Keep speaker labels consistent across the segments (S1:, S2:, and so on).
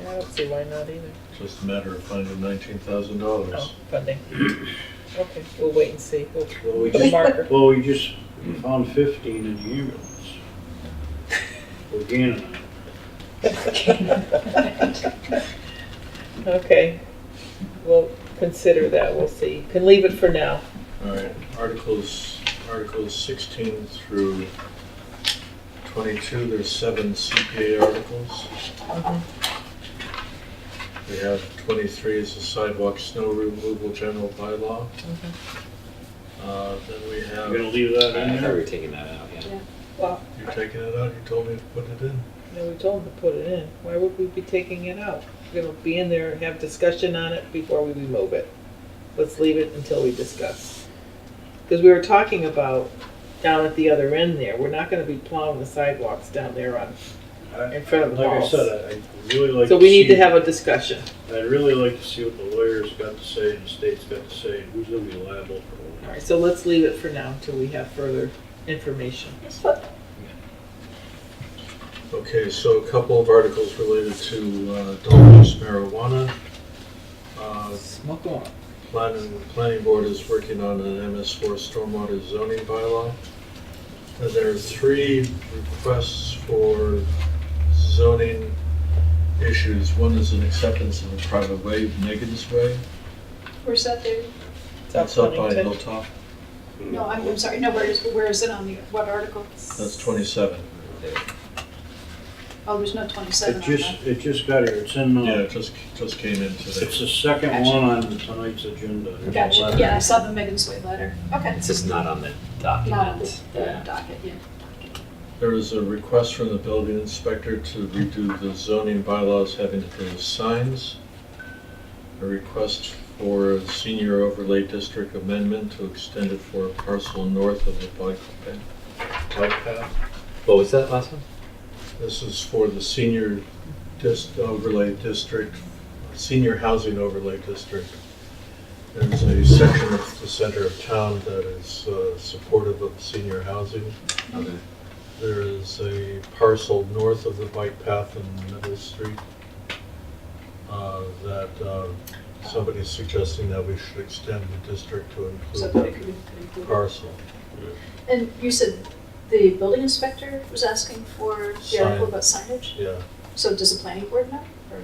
S1: Yeah, I don't see why not either.
S2: Just a matter of finding nineteen thousand dollars.
S1: Oh, funding. Okay, we'll wait and see. We'll
S3: Well, we
S1: put a
S3: just,
S1: marker.
S3: well, we just found fifteen in the ambulance. We're gaining on it.
S1: Okay, we'll consider that. We'll see. Can leave it for now.
S2: All right, articles, articles sixteen through twenty-two, there's seven CPA articles.
S1: Mhm.
S2: We have twenty-three is the sidewalk snow removal general bylaw. Uh, then we
S3: We're
S2: have,
S3: gonna leave that
S4: I
S3: in
S4: thought we were
S3: there?
S4: taking that out, yeah.
S1: Well,
S2: you're taking it out, you told me to put it in.
S1: no, we told them to put it in. Why would we be taking it out? It'll be in there, have discussion on it before we remove it. Let's leave it until we discuss. Because we were talking about down at the other end there, we're not gonna be plowing the sidewalks down there on,
S3: I-
S1: in front of the
S3: Like I
S1: walls.
S3: said, I- I'd really like to see.
S1: So we need to have a discussion.
S3: I'd really like to see what the lawyers got to say and the state's got to say, and who's gonna be liable for what.
S1: All right, so let's leave it for now until we have further information.
S2: Okay, so a couple of articles related to uh, adult use marijuana. Uh,
S4: Smoke on.
S2: Planning, planning board is working on an MS4 stormwater zoning bylaw. And there are three requests for zoning issues. One is an acceptance of a private way, Megan's Way.
S5: Where's that there?
S2: That's up by
S1: Huntington.
S2: Hilltop.
S5: No, I'm, I'm sorry, no, where is, where is it on the, what article?
S2: That's 27.
S5: Oh, there's no
S3: It
S5: twenty-seven on
S3: just,
S5: that.
S3: it just got here, it's in,
S2: Yeah, it
S3: uh,
S2: just, just came in today.
S3: it's the second
S5: Gotcha.
S3: one on tonight's agenda.
S5: Gotcha,
S3: Letter.
S5: yeah, I saw the Megan's Way letter. Okay.
S4: It's just not on the
S5: Not on
S4: document.
S5: the
S4: Yeah.
S5: docket, yeah.
S2: There is a request from the building inspector to redo the zoning bylaws having to do with signs. A request for a senior overlay district amendment to extend it for a parcel north of the bike path. Bike path.
S4: What was that last one?
S2: This is for the senior dis, overlay district, senior housing overlay district. There's a section of the center of town that is uh, supportive of senior housing.
S4: Okay.
S2: There is a parcel north of the bike path in Middle Street uh, that uh, somebody's suggesting that we should extend the district to include
S5: So that it
S2: that
S5: could be- could include-
S2: parcel.
S5: And you said the building inspector was asking for the article
S2: Sign.
S5: about signage?
S2: Yeah,
S5: So does the planning board know? Or-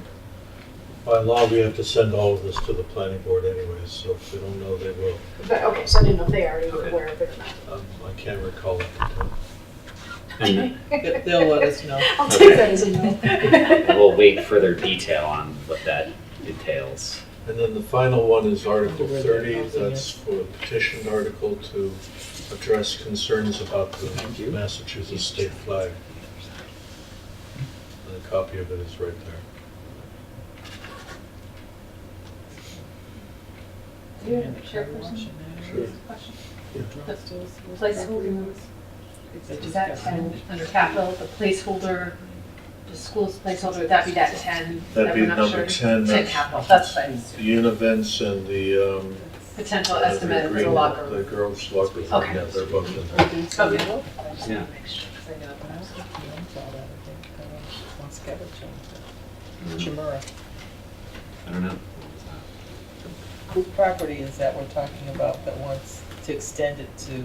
S2: by law, we have to send all of this to the planning board anyways, so if they don't know, they will.
S5: But, okay, so I didn't know if they already were
S4: Okay.
S5: aware of it or not.
S2: Um, I can't recall it.
S4: And
S1: They- They'll let us know.
S5: I'll take that as a no.
S4: we'll wait further detail on what that entails.
S2: And then the final one is Article
S1: Where they're
S2: 30,
S1: housing it.
S2: that's for a petition article to address concerns about the Massachusetts state flag. And a copy of it is right there.
S6: Do you have a chairperson?
S2: Sure.
S6: Question.
S1: That's still-
S6: Placeholder,
S1: They just
S6: is that
S1: got-
S6: ten, under capital, the placeholder, the school's placeholder, would that be that ten?
S2: That'd
S6: that
S2: be
S6: we're not
S2: number
S6: sure?
S2: 10.
S6: Ten capital, that's fine,
S2: The events and the, um.
S6: potential
S2: uh, the
S6: estimate of the
S2: green-
S6: locker
S2: The
S6: room.
S2: girls' locker room,
S6: Okay.
S2: yeah, they're both in there.
S6: Okay.
S1: When
S4: Yeah.
S1: I was looking into all that, I think, I don't know, Moscato changed
S4: Hmm.
S1: it. Chimera.
S4: I don't know.
S1: Whose property is that we're talking about that wants to extend it to,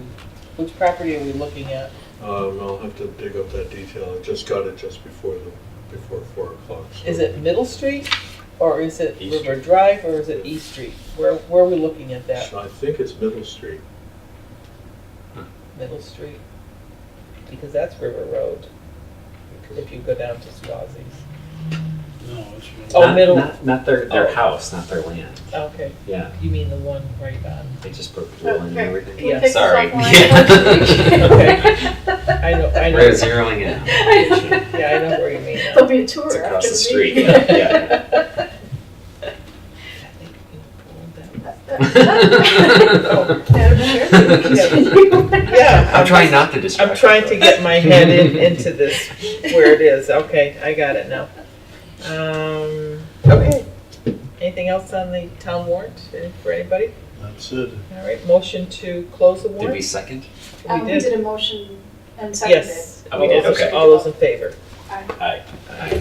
S1: which property are we looking at?
S2: Um, I'll have to dig up that detail, I just got it just before the, before four o'clock. so-
S1: Is it Middle Street, or is it
S4: East
S1: River Drive, or is it East Street? Where, where are we looking at that?
S2: I think it's Middle Street.
S1: Middle Street? Because that's River Road, if you go down to Swazies.
S3: No, it's.
S1: Oh,
S4: Not-
S1: middle.
S4: Not, not their,
S1: Oh.
S4: their house, not their land.
S1: Okay,
S4: Yeah,
S1: you mean the one right on,
S4: they just put pool in and
S5: Okay.
S4: everything.
S5: Can we
S1: Yeah,
S5: take this
S4: Sorry.
S5: offline?
S1: I know, I know,
S4: We're zeroing in.
S1: yeah, I know where you mean.
S5: There'll be a tour
S4: It's
S5: after the meeting.
S4: across the street. Yeah.
S1: I think, you know, pull that-
S5: Madam Chair, continue.
S1: Yeah.
S4: I'm trying not to distract.
S1: I'm trying to get my head in, into this, where it is, okay, I got it now. Um, okay, anything else on the town warrant eh, for anybody?
S2: That's it.
S1: All right, motion to close the
S4: Did we
S1: warrant?
S4: second?
S5: Um, we did a motion and seconded.
S1: Yes.
S4: Oh, we did,
S1: All those-
S4: okay.
S1: All those in favor?
S4: Aye.